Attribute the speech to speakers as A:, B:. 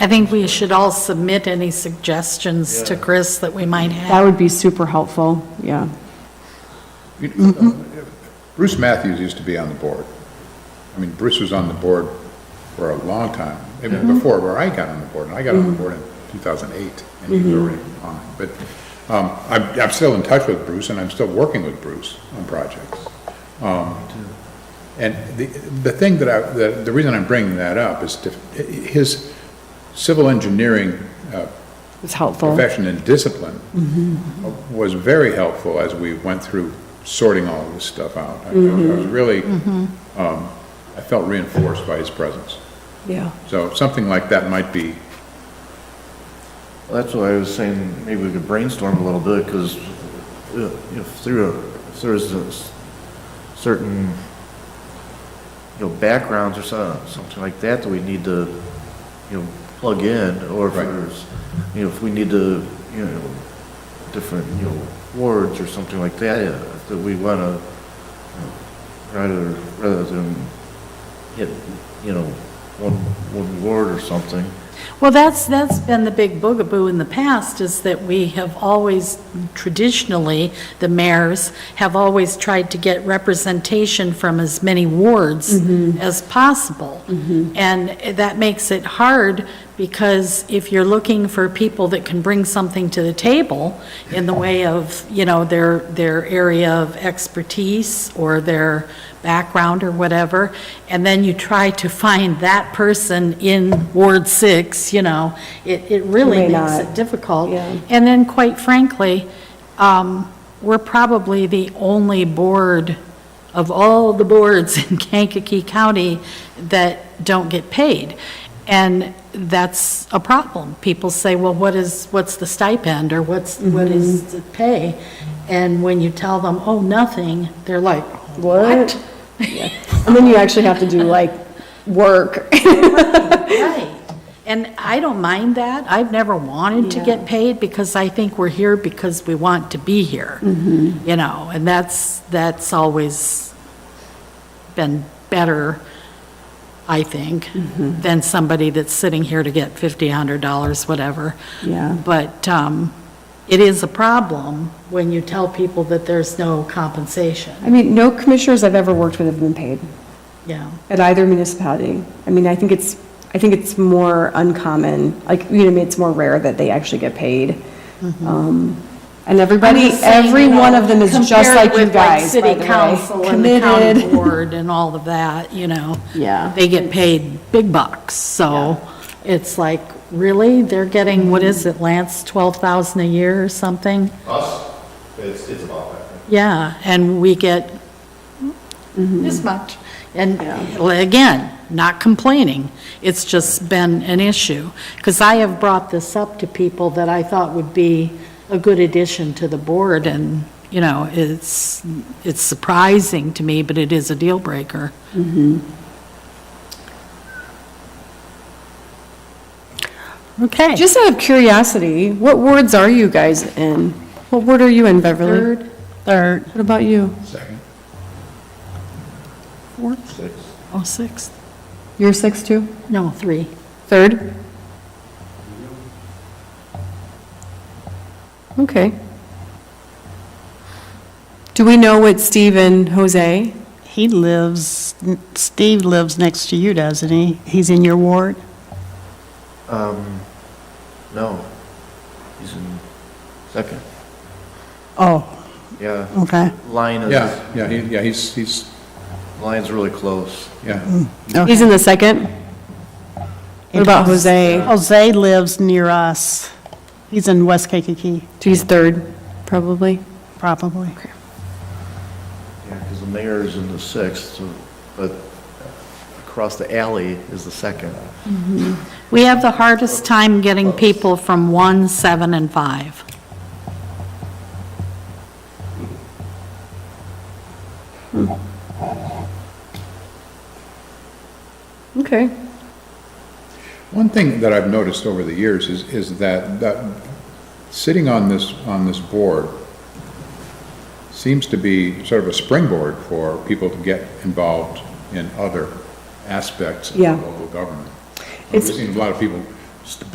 A: I think we should all submit any suggestions to Chris that we might
B: That
A: have.
B: would be super helpful, yeah.
C: mm, Bruce Matthews used to be on the board. I mean, Bruce was on the board for a long time, even before where I got on the board, and I got on the board in 2008, and you were already on. it. But um, I'm, I'm still in touch with Bruce, and I'm still working with Bruce on projects. Um, And the, the thing that I, the, the reason I'm bringing that up is to, his civil engineering uh,
B: It's helpful.
C: profession and discipline uh, was very helpful as we went through sorting all of this stuff out. I I was really, um, I felt reinforced by his presence.
B: Yeah.
C: So something like that might be,
D: That's why I was saying, maybe we could brainstorm a little bit, because if there, if there's a s- certain, you know, backgrounds or so- something like that that we need to, you know, plug in, or if
C: Right.
D: there's, you know, if we need to, you know, different, you know, words or something like that, uh, that we want to, rather, rather than hit, you know, one, one word or something.
A: Well, that's, that's been the big boogaboo in the past, is that we have always, traditionally, the mayors have always tried to get representation from as many wards
B: Mm-hmm.
A: as possible. And that makes it hard, because if you're looking for people that can bring something to the table in the way of, you know, their, their area of expertise or their background or whatever, and then you try to find that person in Ward 6, you know, it, it really
B: May
A: makes
B: not.
A: it difficult.
B: Yeah.
A: And then, quite frankly, um, we're probably the only board of all the boards in Kankakee County that don't get paid. And that's a problem. People say, well, what is, what's the stipend, or what's, what
B: Mm-hmm.
A: is the pay? And when you tell them, oh, nothing, they're like,
B: What?
A: what?
B: And then you actually have to do like work.
A: Right. And I don't mind that. I've never wanted to get paid because I think we're here because we want to be here. You know, and that's, that's always been better, I think, than somebody that's sitting here to get $50, $100, whatever.
B: Yeah.
A: But um, it is a problem when you tell people that there's no compensation.
B: I mean, no commissioners I've ever worked with have been paid
A: Yeah.
B: at either municipality. I mean, I think it's, I think it's more uncommon, like, you know, I mean, it's more rare that they actually get paid. Um, And everybody,
A: I'm just saying,
B: every
A: you know,
B: one of them is just
A: compared
B: like you
A: with, like,
B: guys, by the way.
A: City council and the county
B: Committed.
A: board and all of that, you know.
B: Yeah.
A: They get paid big bucks, so it's like, really? They're getting, what is it, Lance, 12,000 a year or something?
E: Us, it's, it's about that.
A: Yeah, and we get this much. Hmm. And again, not complaining, it's just been an issue. Because I have brought this up to people that I thought would be a good addition to the board, and, you know, it's, it's surprising to me, but it is a deal breaker.
B: Mm-hmm.
A: Okay.
B: Just out of curiosity, what wards are you guys in? What ward are you in, Beverly?
A: Third.
B: Third. What about you?
A: Fourth? Oh, sixth?
B: You're six, too?
A: No, three.
B: Third? Okay. Do we know what Steve and Jose?
F: He lives, Steve lives next to you, doesn't he? He's in your ward?
D: Um, no, he's in second,
F: Oh,
D: yeah.
F: okay.
D: Line is,
C: yeah, yeah, he, yeah, he's, he's,
D: line's really close.
C: yeah.
F: Okay.
B: He's in the second? What about Jose?
F: Jose lives near us. He's in West Kankakee,
B: He's third, probably.
F: probably.
D: Yeah, because the mayor is in the sixth, so- but across the alley is the second.
A: We have the hardest time getting people from one, seven, and five.
B: Okay.
C: One thing that I've noticed over the years is, is that, that sitting on this, on this board seems to be sort of a springboard for people to get involved in other aspects of
B: Yeah.
C: local government. We've
B: It's-
C: seen a lot of people just